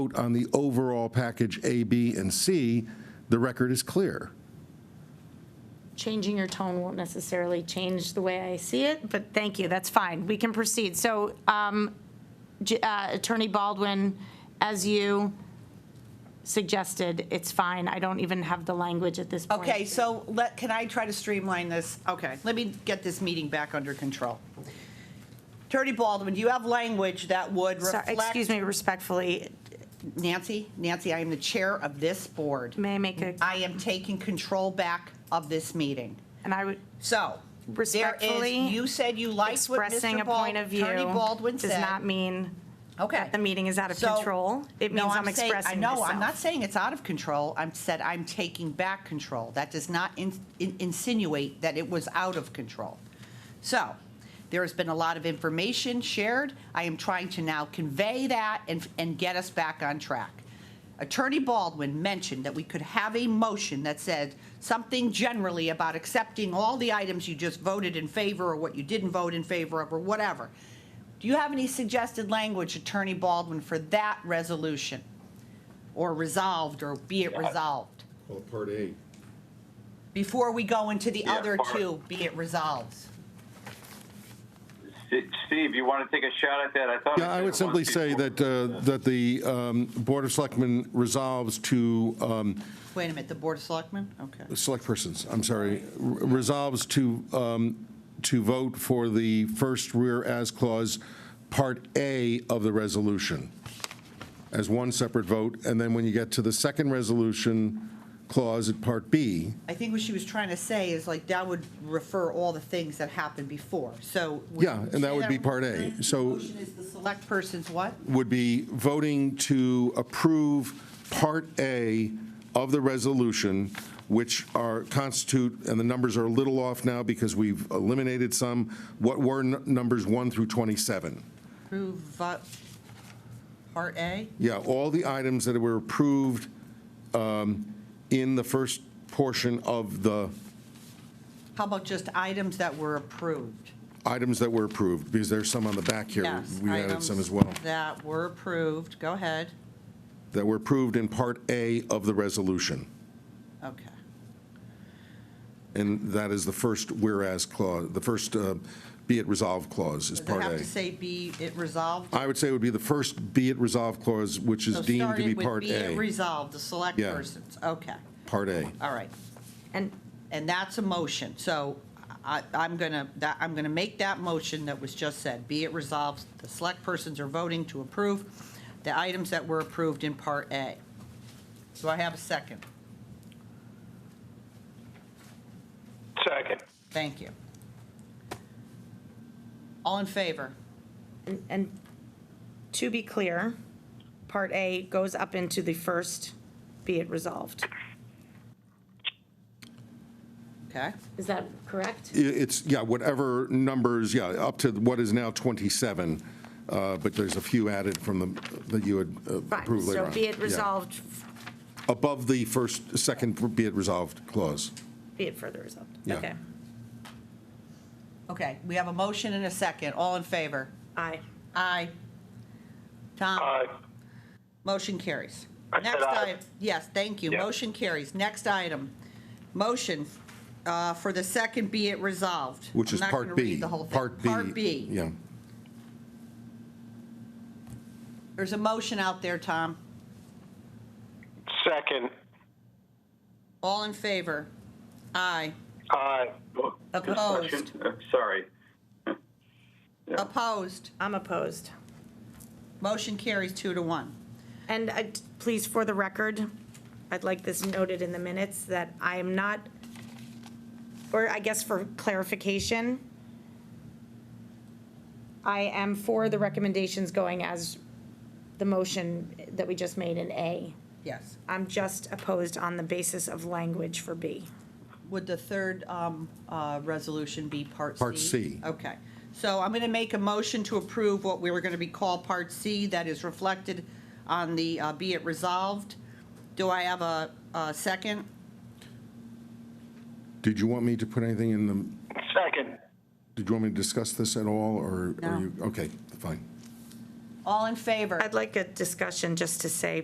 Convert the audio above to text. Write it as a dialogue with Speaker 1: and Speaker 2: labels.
Speaker 1: vote on the overall package A, B, and C, the record is clear.
Speaker 2: Changing your tone won't necessarily change the way I see it, but thank you, that's fine. We can proceed. So um, J- uh, Attorney Baldwin, as you suggested, it's fine. I don't even have the language at this point.
Speaker 3: Okay, so let, can I try to streamline this? Okay, let me get this meeting back under control. Attorney Baldwin, do you have language that would
Speaker 2: So,
Speaker 3: reflect?
Speaker 2: Excuse me respectfully,
Speaker 3: Nancy, Nancy, I am the chair of this board.
Speaker 2: may I make a,
Speaker 3: I am taking control back of this meeting.
Speaker 2: and I would,
Speaker 3: So, there is,
Speaker 2: Respectfully,
Speaker 3: you said you liked what
Speaker 2: expressing
Speaker 3: Mr.
Speaker 2: a
Speaker 3: Bal-
Speaker 2: point of view
Speaker 3: Attorney Baldwin
Speaker 2: does
Speaker 3: said.
Speaker 2: not mean
Speaker 3: Okay.
Speaker 2: the meeting is out of
Speaker 3: So-
Speaker 2: control. It
Speaker 3: No,
Speaker 2: means I'm
Speaker 3: saying- I
Speaker 2: expressing
Speaker 3: know, I'm not
Speaker 2: myself.
Speaker 3: saying it's out of control. I'm said I'm taking back control. That does not in- in- insinuate that it was out of control. So, there has been a lot of information shared. I am trying to now convey that and, and get us back on track. Attorney Baldwin mentioned that we could have a motion that said something generally about accepting all the items you just voted in favor or what you didn't vote in favor of or whatever. Do you have any suggested language, Attorney Baldwin, for that resolution? Or resolved, or be it resolved?
Speaker 1: Well, Part A.
Speaker 3: Before we go into the
Speaker 4: Yeah,
Speaker 3: other
Speaker 4: part-
Speaker 3: two, be it resolves.
Speaker 4: St- Steve, you want to take a shot at that? I thought.
Speaker 1: Yeah, I
Speaker 4: said
Speaker 1: would
Speaker 4: it
Speaker 1: simply
Speaker 4: once
Speaker 1: say
Speaker 4: before.
Speaker 1: that, uh, that the um, Board of Selectmen resolves to, um,
Speaker 3: Wait a minute, the Board of Selectmen? Okay.
Speaker 1: select persons, I'm sorry, re- resolves to, um, to vote for the first rear as clause, Part A of the resolution, as one separate vote, and then when you get to the second resolution clause at Part B,
Speaker 3: I think what she was trying to say is like, that would refer all the things that happened before, so. would
Speaker 1: yeah,
Speaker 3: you
Speaker 1: and that
Speaker 3: say
Speaker 1: would be Part A. So
Speaker 3: Is the select person's what?
Speaker 1: would be voting to approve Part A of the resolution, which are, constitute, and the numbers are a little off now because we've eliminated some, what were n- numbers 1 through 27.
Speaker 3: Approve, vo- Part A?
Speaker 1: Yeah, all the items that were approved um, in the first portion of the
Speaker 3: How about just items that were approved?
Speaker 1: items that were approved, because there's some on the back here.
Speaker 3: Yes,
Speaker 1: We added
Speaker 3: items
Speaker 1: some as well,
Speaker 3: That were approved, go ahead.
Speaker 1: that were approved in Part A of the resolution.
Speaker 3: Okay.
Speaker 1: And that is the first whereas clause, the first uh, be it resolved clause is
Speaker 3: Does it
Speaker 1: Part
Speaker 3: have
Speaker 1: A.
Speaker 3: to say be it resolved?
Speaker 1: I would say it would be the first be it resolved clause, which is
Speaker 3: So
Speaker 1: deemed to
Speaker 3: starting
Speaker 1: be
Speaker 3: with
Speaker 1: Part
Speaker 3: Be it
Speaker 1: A.
Speaker 3: resolved, the select
Speaker 1: Yeah.
Speaker 3: persons, okay,
Speaker 1: Part A.
Speaker 3: all right.
Speaker 2: And
Speaker 3: And that's a motion, so I, I'm gonna, that, I'm gonna make that motion that was just said. Be it resolved, the select persons are voting to approve the items that were approved in Part A. Do I have a second?
Speaker 5: Second.
Speaker 3: Thank you. All in favor?
Speaker 2: And- And to be clear, Part A goes up into the first, be it resolved.
Speaker 3: Okay,
Speaker 2: Is that correct?
Speaker 1: I- It's, yeah, whatever numbers, yeah, up to what is now 27, uh, but there's a few added from the, that you had uh,
Speaker 2: Fine,
Speaker 1: approved later
Speaker 2: so
Speaker 1: on.
Speaker 2: be it
Speaker 1: Yeah.
Speaker 2: resolved,
Speaker 1: Above the first, second be it resolved clause.
Speaker 2: be it further resolved.
Speaker 1: Yeah.
Speaker 2: Okay.
Speaker 3: okay, we have a motion and a second, all in favor?
Speaker 2: Aye.
Speaker 3: Aye. Tom?
Speaker 4: Uh,
Speaker 5: Aye.
Speaker 3: Motion carries.
Speaker 5: I said
Speaker 3: Next
Speaker 5: aye.
Speaker 3: item, yes, thank you.
Speaker 5: Yeah.
Speaker 3: Motion carries. Next item, motion uh, for the second be it resolved.
Speaker 1: Which is
Speaker 3: I'm
Speaker 1: Part
Speaker 3: not going to
Speaker 1: B.
Speaker 3: read the whole thing.
Speaker 1: Part B.
Speaker 3: Part B.
Speaker 1: Yeah.
Speaker 3: There's a motion out there, Tom.
Speaker 5: Second.
Speaker 3: All in favor? Aye.
Speaker 5: Aye.
Speaker 4: Oh,
Speaker 3: Opposed.
Speaker 4: discussion? Uh, Sorry.
Speaker 3: Opposed?
Speaker 2: I'm opposed.
Speaker 3: Motion carries two to one.
Speaker 2: And I- please, for the record, I'd like this noted in the minutes that I am not, or I guess for clarification, I am for the recommendations going as the motion that we just made in A.
Speaker 3: Yes.
Speaker 2: I'm just opposed on the basis of language for B.
Speaker 3: Would the third um, uh, resolution be Part C?
Speaker 1: Part C.
Speaker 3: Okay. So I'm going to make a motion to approve what we were going to be called Part C that is reflected on the uh, be it resolved. Do I have a a second?
Speaker 1: Did you want me to put anything in the,
Speaker 5: Second.
Speaker 1: did you want me to discuss this at all, or? are
Speaker 3: No.
Speaker 1: you Okay, fine.
Speaker 3: All in favor?
Speaker 2: I'd like a discussion just to say